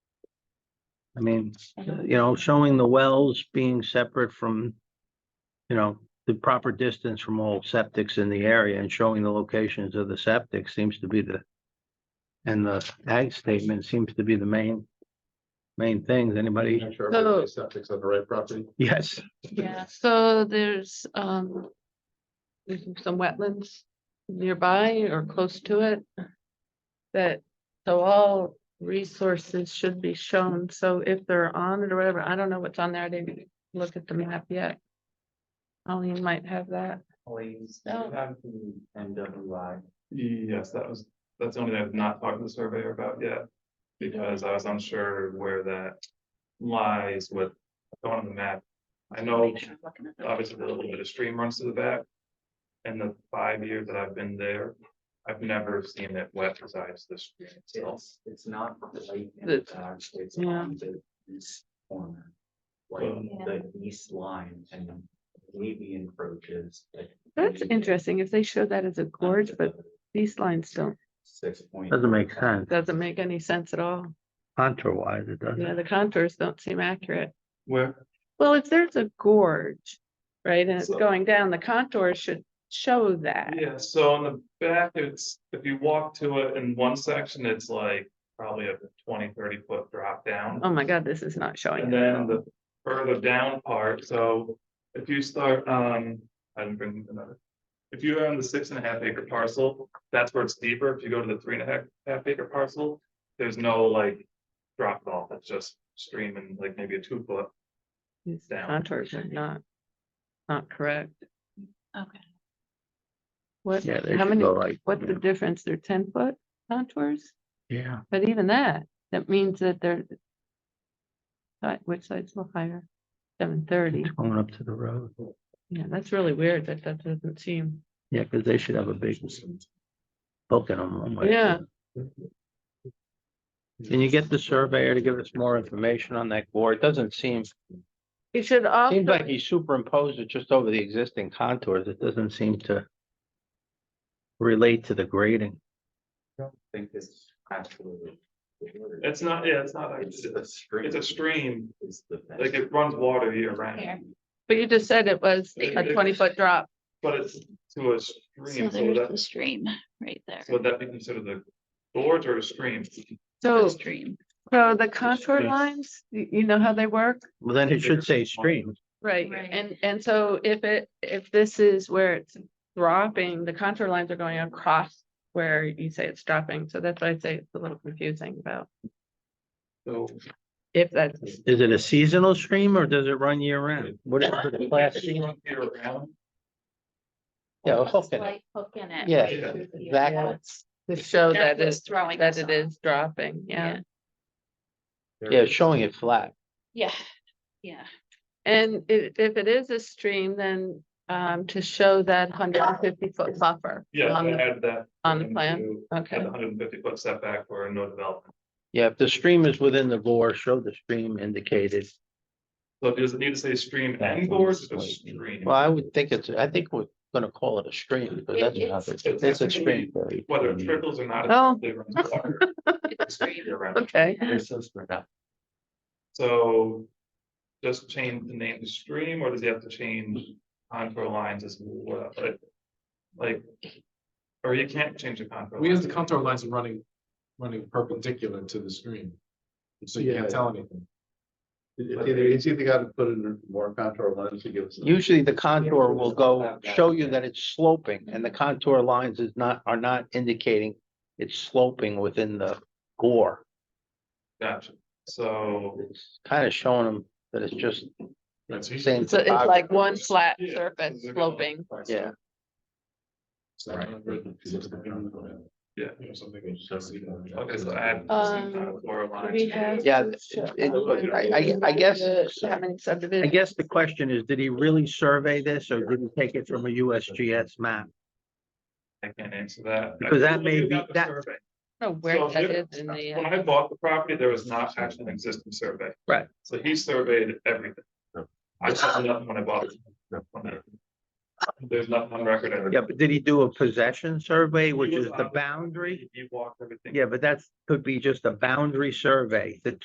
I mean, you know, showing the wells being separate from, you know, the proper distance from all septics in the area and showing the locations of the septic seems to be the and the ag statement seems to be the main, main things. Anybody? Make sure So- everybody's septic's on the right property. Yes. Yeah, so there's, um, there's some wetlands nearby or close to it. That, so all resources should be shown, so if they're on it or whatever, I don't know what's on there, I didn't look at the map yet. Colleen might have that, Please, do you No. have the MWI. Yes, that was, that's something I've not talked to the surveyor about yet. Because I was unsure where that lies with going on the map. I know obviously there's a little bit of stream runs to the back. In the five years that I've been there, I've never seen it wet besides the stream itself. It's, it's not right in The- the back, it's yeah. on the east corner. Like the east line and maybe encroaches. like, that's maybe interesting, if they show that as a gorge, under but the these lines don't, Six point. Doesn't make sense. doesn't make any sense at all. Contour wise, it doesn't. Yeah, the contours don't seem accurate. Where, Well, if there's a gorge, right, and it's So- going down, the contour should show that. yeah, so on the back, it's, if you walk to it in one section, it's like probably a 20, 30 foot drop down. Oh my god, this is not showing. And it at then all. the further down part, so if you start, um, I didn't bring another. If you are on the six and a half acre parcel, that's where it's deeper. If you go to the three and a half, half acre parcel, there's no like. Drop off, it's just streaming like maybe a two foot. These down. Contours are not, not correct. Okay. What, Yeah, they how should many, go like- what's the difference? They're ten foot contours? Yeah. But even that, that means that they're. Side- Which side's a little higher? Seven thirty. It's going up to the road. Yeah, that's really weird that that doesn't seem, Yeah, because they should have a big book in them. one way. yeah. Can you get the surveyor to give us more information on that board? It Doesn't seem, It should also. seems like he superimposed it just over the existing contours. It doesn't seem to relate to the grading. I don't think it's absolutely. It's not, yeah, it's not, It's it's a stream. a stream, Is the. fence. like it runs water year round, Here. But you just said it was a It- twenty foot drop. but it's to a So stream, so there's the that, stream right there. so would that be considered the gorge or a stream? The Oh. So. Stream. So the contour yeah. lines, y- you know how they work? Well, then it should say stream. Right, Right. and, and so if it, if this is where it's dropping, the contour lines are going across where you say it's dropping, so that's why I say it's a little confusing about So if that's, Is it a seasonal stream or does it run year round? What is the class? It runs year round. Yeah, a Almost hook in it. like hook in it. Yeah, right through the- exactly. to show That's that what's is, throwing that us it off. is dropping, yeah. There Yeah, is- showing it flat. Yeah, yeah. And if, if it is a stream, then, um, to show that hundred and fifty foot buffer. Yeah, on I the- added that. on the plan? into- Had Okay, the hundred and fifty foot setback for no development. Yeah, if the stream is within the bore, show the stream indicated. So does it need to say stream That's and gorge or what it's stream? Well, I would think it's, I think we're gonna call it a stream, because It- that's it's- another, it's it's a actually- stream. Barry. Whether it trickles or not. Oh. it runs water It's stream. year round. okay, They're so spread out. So just change the name to stream or does he have to change contour lines as well? Like- Like, or you can't change the contour. We have the lines. contour lines running, running perpendicular to the stream. So you can't tell anything. It's either, it's either gotta put in more contour lines to give us. Usually the contour will go, show you that Mm-hmm. it's sloping and the contour lines is not, are not indicating it's sloping within the gore. Gotcha. So It's kind of showing them that it's just Right, so you- same. so it's like one flat Yeah. surface sloping. Yeah, it's not written, it's just the contour. Yeah. You know, something. Okay, so add. Um, contour lines. yeah, it- it- I, I, I guess, How many I subdivisions? guess the question is, did he really survey this or did he take it from a USGS map? I can't answer that. Because that I may looked be- at the that- survey. I don't know where So that if- is in the. When uh, I bought the property, there was not actually an existing survey. Right. So he surveyed everything. No. I saw nothing when I bought it. No. There's nothing on record. of it. Yeah, but did he do a possession survey, which He was is on the boundary? He walked everything. Yeah, but that's, could be just a boundary survey that